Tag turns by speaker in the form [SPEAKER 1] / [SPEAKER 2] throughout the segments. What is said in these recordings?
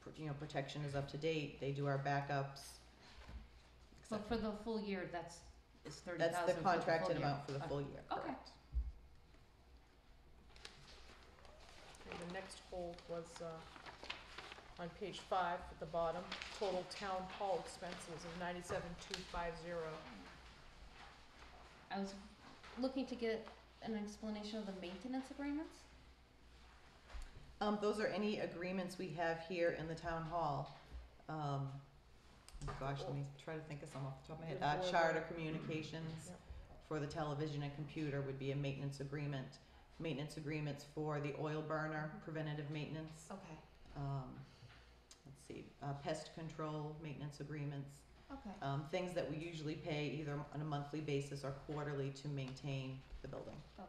[SPEAKER 1] pr- you know, protection is up to date, they do our backups. et
[SPEAKER 2] But for the full year, that's, is
[SPEAKER 1] cetera.
[SPEAKER 2] thirty
[SPEAKER 1] That's
[SPEAKER 2] thousand
[SPEAKER 1] the
[SPEAKER 2] for the full year?
[SPEAKER 1] contracted amount for the
[SPEAKER 2] Okay.
[SPEAKER 1] full year,
[SPEAKER 2] Okay.
[SPEAKER 1] correct.
[SPEAKER 3] And the next hold was, uh, on page five at the bottom, total town hall expenses of ninety-seven two five zero.
[SPEAKER 2] I was looking to get an explanation of the maintenance agreements.
[SPEAKER 1] Um, those are any agreements we have here in the town hall. Um, oh gosh, let me try to think of some off the top of my head.
[SPEAKER 3] Good
[SPEAKER 1] Uh,
[SPEAKER 3] board.
[SPEAKER 1] Charter Communications
[SPEAKER 3] Yep.
[SPEAKER 1] for the television and computer would be a maintenance agreement. Maintenance agreements for the oil burner, preventative maintenance.
[SPEAKER 2] Okay,
[SPEAKER 1] Um, let's see, uh, pest control maintenance agreements.
[SPEAKER 2] okay.
[SPEAKER 1] Um, things that we usually pay either on a monthly basis or quarterly to maintain the building.
[SPEAKER 2] Okay.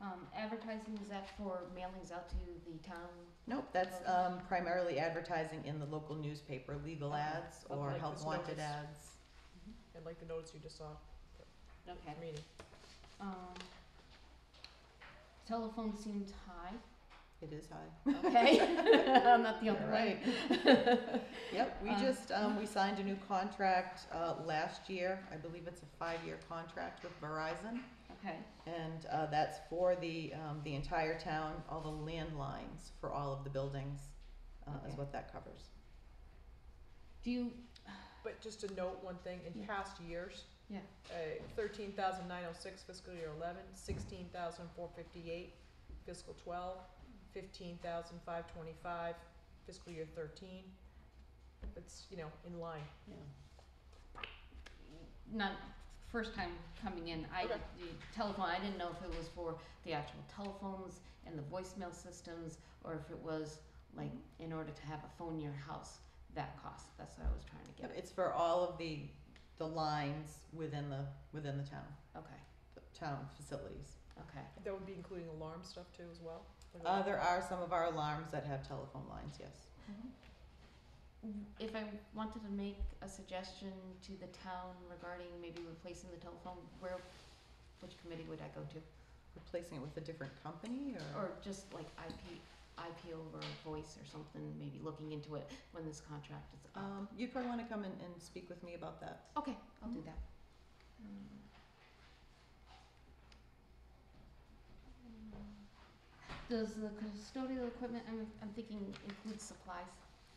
[SPEAKER 2] Um, advertising, is that for mailings out to the town?
[SPEAKER 1] Nope, that's um, primarily advertising in the local newspaper, legal
[SPEAKER 2] Okay.
[SPEAKER 1] ads
[SPEAKER 3] Oh,
[SPEAKER 1] or
[SPEAKER 3] like
[SPEAKER 1] health
[SPEAKER 3] this
[SPEAKER 1] wanted
[SPEAKER 3] notice.
[SPEAKER 1] ads.
[SPEAKER 3] And like the notice you just saw,
[SPEAKER 2] Okay.
[SPEAKER 3] I mean,
[SPEAKER 2] Um, telephone seemed high,
[SPEAKER 1] It is high.
[SPEAKER 2] okay? I'm not the
[SPEAKER 1] You're
[SPEAKER 2] only one.
[SPEAKER 1] right. Yep, we
[SPEAKER 2] Um,
[SPEAKER 1] just, um, we signed a new contract uh, last year. I believe it's a five-year contract with Verizon.
[SPEAKER 2] Okay,
[SPEAKER 1] And uh, that's for the, um, the entire town, all the landlines for all of the buildings uh, is
[SPEAKER 2] Okay.
[SPEAKER 1] what that covers.
[SPEAKER 2] do you,
[SPEAKER 3] but just to note one thing, in
[SPEAKER 2] Yeah.
[SPEAKER 3] past years.
[SPEAKER 2] Yeah.
[SPEAKER 3] Uh, thirteen thousand nine oh six fiscal year eleven, sixteen thousand four fifty-eight fiscal twelve, fifteen thousand five twenty-five fiscal year thirteen. It's, you know, in line.
[SPEAKER 2] not, first time coming in, I,
[SPEAKER 3] Okay.
[SPEAKER 2] the telephone, I didn't know if it was for the actual telephones and the voicemail systems, or if it was like in order to have a phone in your house, that cost, that's what I was trying to
[SPEAKER 1] Yep,
[SPEAKER 2] get at.
[SPEAKER 1] It's for all of the, the lines within the, within the town,
[SPEAKER 2] Okay,
[SPEAKER 1] the town facilities.
[SPEAKER 2] okay,
[SPEAKER 3] That would be including alarm stuff too as well? Or
[SPEAKER 1] Uh, there are some of our alarms that have telephone lines, yes.
[SPEAKER 2] If I wanted to make a suggestion to the town regarding maybe replacing the telephone, where, which committee would I go to?
[SPEAKER 1] Replacing it with a different company or?
[SPEAKER 2] Or just like IP, IP over voice or something, maybe looking into it when this contract is up?
[SPEAKER 1] Um, you'd probably wanna come and, and speak with me about that.
[SPEAKER 2] Okay, I'll do that. Mm. Does the custodial equipment, I'm, I'm thinking includes supplies?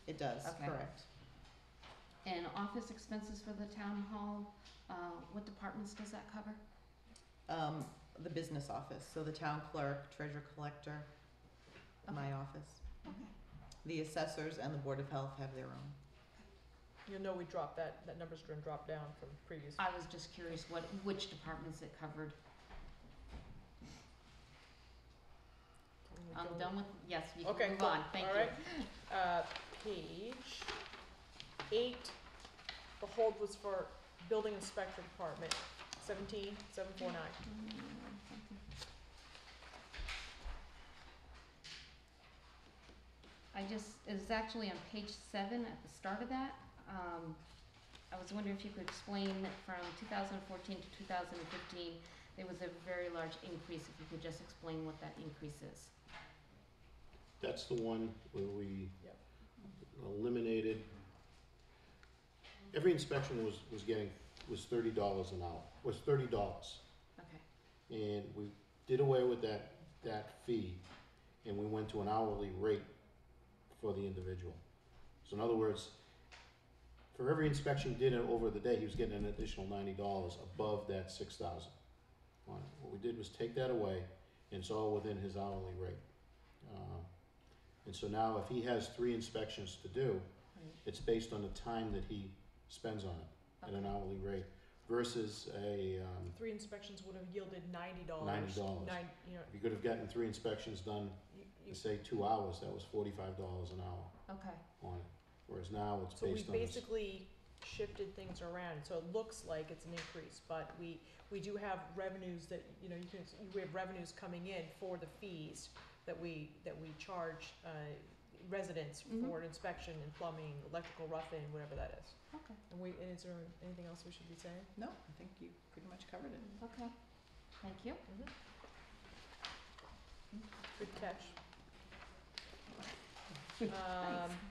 [SPEAKER 1] It does,
[SPEAKER 2] Okay.
[SPEAKER 1] correct.
[SPEAKER 2] And office expenses for the town hall, uh, what departments does that cover?
[SPEAKER 1] Um, the business office, so the town clerk, treasurer collector, my office.
[SPEAKER 2] Okay.
[SPEAKER 1] The assessors and the board of health have their own.
[SPEAKER 3] You'll know we dropped that, that number's gonna drop down from previous.
[SPEAKER 2] I was just curious what, which departments it covered. I'm done with, yes, you
[SPEAKER 3] Okay,
[SPEAKER 2] can move
[SPEAKER 3] cool.
[SPEAKER 2] on, thank you.
[SPEAKER 3] All right. Uh, page eight, the hold was for building inspector department, seventeen, seven four nine.
[SPEAKER 2] I just, it's actually on page seven at the start of that. Um, I was wondering if you could explain that from two thousand fourteen to two thousand fifteen, there was a very large increase, if you could just explain what that increase is.
[SPEAKER 4] That's the one where we
[SPEAKER 3] Yep.
[SPEAKER 4] eliminated, every inspection was, was getting, was thirty dollars an hour, was thirty dollars.
[SPEAKER 2] Okay,
[SPEAKER 4] And we did away with that, that fee, and we went to an hourly rate for the individual. So in other words, for every inspection he did over the day, he was getting an additional ninety dollars above that six thousand. What we did was take that away, and it's all within his hourly rate. Uh, And so now if he has three inspections to do,
[SPEAKER 2] Right.
[SPEAKER 4] it's based on the time that he spends on it at an hourly rate versus a, um,
[SPEAKER 3] Three inspections would have yielded ninety dollars.
[SPEAKER 4] $90.
[SPEAKER 3] Nine, you know,
[SPEAKER 4] if you could have gotten three inspections done
[SPEAKER 3] you, you,
[SPEAKER 4] in say two hours, that was forty-five dollars an hour
[SPEAKER 2] okay,
[SPEAKER 4] on it. Whereas now it's
[SPEAKER 3] so we
[SPEAKER 4] based on this.
[SPEAKER 3] basically shifted things around, so it looks like it's an increase, but we, we do have revenues that, you know, you can, we have revenues coming in for the fees that we, that we charge, uh, residents
[SPEAKER 2] Mhm.
[SPEAKER 3] for inspection and plumbing, electrical rough-in, whatever that is.
[SPEAKER 2] okay,
[SPEAKER 3] And we, and is there anything else we should be saying?
[SPEAKER 1] No, I think you pretty much covered it.
[SPEAKER 2] okay, thank you.
[SPEAKER 3] Mm-hmm. Good catch. Um,